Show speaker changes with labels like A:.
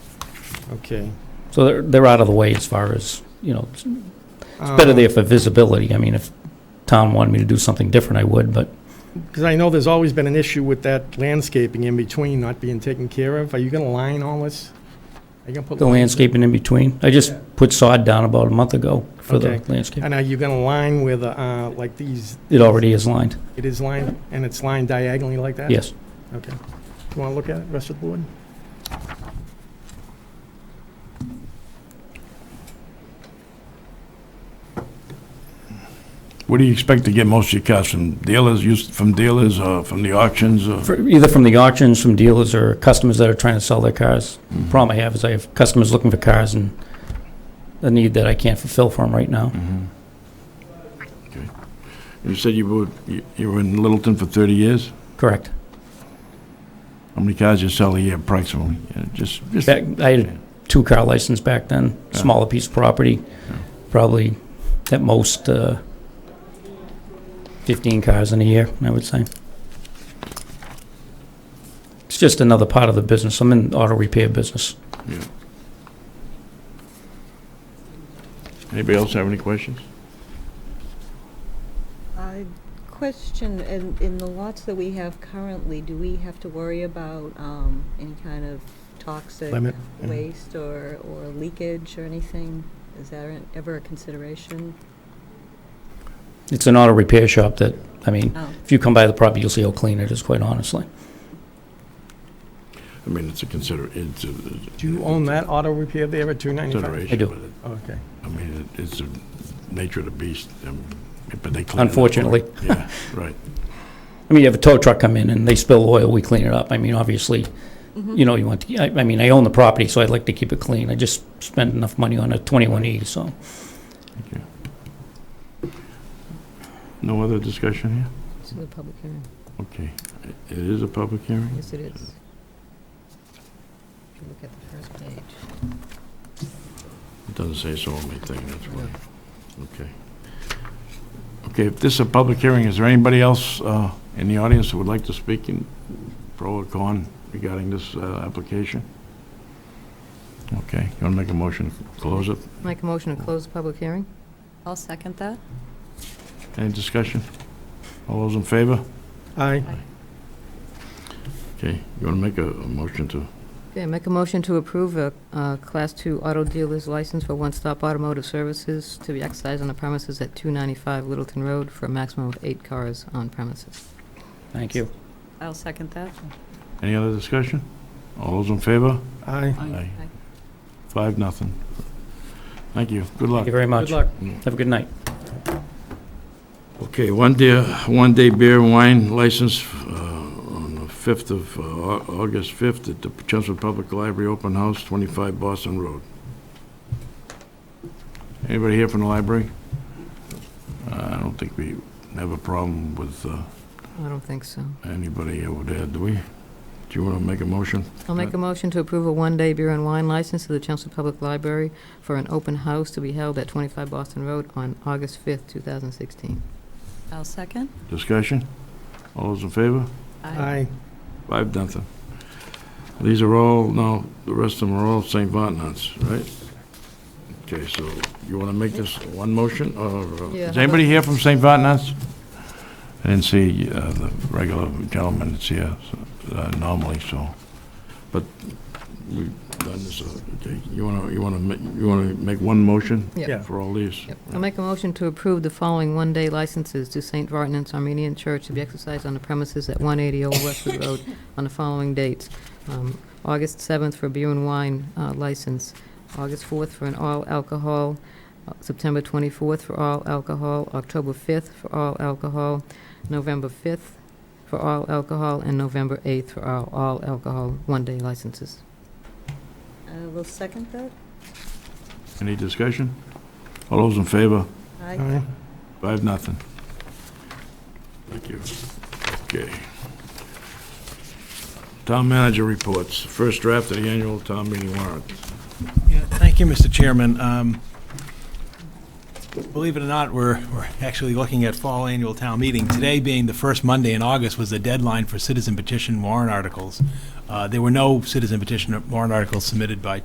A: okay.
B: So they're, they're out of the way as far as, you know, it's
A: Um,
B: better there for visibility. I mean, if Tom wanted me to do something different, I would, but
A: Because I know there's always been an issue with that landscaping in between not being taken care of. Are you going to line all this? Are you going to put?
B: the
A: lines-
B: landscaping in between, I just
A: Yeah.
B: put sod down about a month ago for the
A: Okay.
B: landscape.
A: And are you going to line with, uh, like these,
B: It already is lined,
A: it is lined, and it's lined diagonally like that?
B: yes.
A: Okay. Do you want to look at it, rest of the board?
C: Where do you expect to get most of your cars from dealers, used from dealers or from the auctions or?
B: For- Either from the auctions, from dealers, or customers that are trying to sell their cars.
A: Mm-hmm.
B: Problem I have is I have customers looking for cars and a need that I can't fulfill for them right now.
A: Mm-hmm.
C: Okay. You said you were, you- you were in Littleton for 30 years?
B: Correct.
C: How many cars you sell a year approximately? Yeah, Just, just,
B: Back, I had a two-car license back then, smaller piece of property, probably at most uh, 15 cars in a year, I would say. It's just another part of the business. I'm in the auto repair business.
C: anybody else have any questions?
D: I Question, in, in the lots that we have currently, do we have to worry about um, any kind of toxic
A: Limit, yeah.
D: waste or, or leakage or anything? Is that an- ever a consideration?
B: It's an auto repair shop that, I mean,
D: Oh,
B: if you come by the property, you'll see how clean it is, quite honestly.
C: I mean, it's a consider, it's a.
A: Do you own that auto repair there at 295?
C: Consideration.
B: I do.
C: but it-
A: Okay.
C: I mean, it- it's the nature of the beast, um, but they. clean it up.
B: Unfortunately.
C: Yeah, right.
B: I mean, you have a tow truck come in and they spill oil, we clean it up. I mean, obviously, you know, you want to, I, I mean, I own the property, so I'd like to keep it clean. I just spent enough money on a 21E, so.
C: No other discussion here?
D: it's a public hearing.
C: Okay. It is a public hearing?
D: Yes, it is. If you look at the first page.
C: It doesn't say so on my thing, that's why. Okay. Okay, if this is a public hearing, is there anybody else uh, in the audience who would like to speak in pro or con regarding this uh, application? Okay, you want to make a motion, to close it?
E: Make a motion to close the public hearing?
D: I'll second that.
C: Any discussion? All those in favor?
A: Aye.
C: Okay, you want to make a a motion to,
E: Okay, make a motion to approve a uh, Class II auto dealer's license for One Stop Automotive Services to be exercised on the premises at 295 Littleton Road for a maximum of eight cars on premises.
B: Thank you.
D: I'll second that.
C: any other discussion? All those in favor?
A: Aye.
C: Aye. Five, nothing. Thank you, good luck.
B: Thank you very much.
A: Good luck.
B: Have a good night.
C: Okay, one day, one day beer and wine license uh, on the 5th of, uh, Au- August 5th at the Chancellor Public Library Open House, 25 Boston Road. Anybody here from the library? Uh, I don't think we have a problem with uh,
E: I don't think so.
C: anybody over there, do we? Do you want to make a motion?
E: I'll make a motion to approve a one-day beer and wine license to the Chelmsford Public Library for an open house to be held at 25 Boston Road on August 5th, 2016.
D: I'll second.
C: Discussion? All those in favor?
A: Aye.
C: Five, nothing. These are all, no, the rest of them are all St. Vontnants, right? Okay, so you want to make this one motion, or uh,
E: Yeah.
C: is anybody here from St. Vontnants? I didn't see uh, the regular gentleman that's here so, uh, normally, so, but we've done this, uh, okay, you want to, you want to, you want to make one motion
E: Yep.
A: Yeah.
C: for all these?
E: Yep. I'll make a motion to approve the following one-day licenses to St. Vartanant's Armenian Church to be exercised on the premises at 180 Old Westwood Road on the following dates. Um, August 7th for beer and wine uh, license, August 4th for an all alcohol, uh, September 24th for all alcohol, October 5th for all alcohol, November 5th for all alcohol, and November 8th for all all alcohol one-day licenses.
D: I will Uh, second that.
C: Any discussion? All those in favor?
D: Aye.
A: Aye.
C: I have nothing. Thank you. Okay. Town manager reports, first draft of the annual town meeting warrant.
F: Yeah, Thank you, Mr. Chairman. Um, Believe it or not, we're, we're actually looking at fall annual town meeting. Today being the first Monday in August was the deadline for citizen petition warrant articles. Uh, There were no citizen petition warrant articles submitted by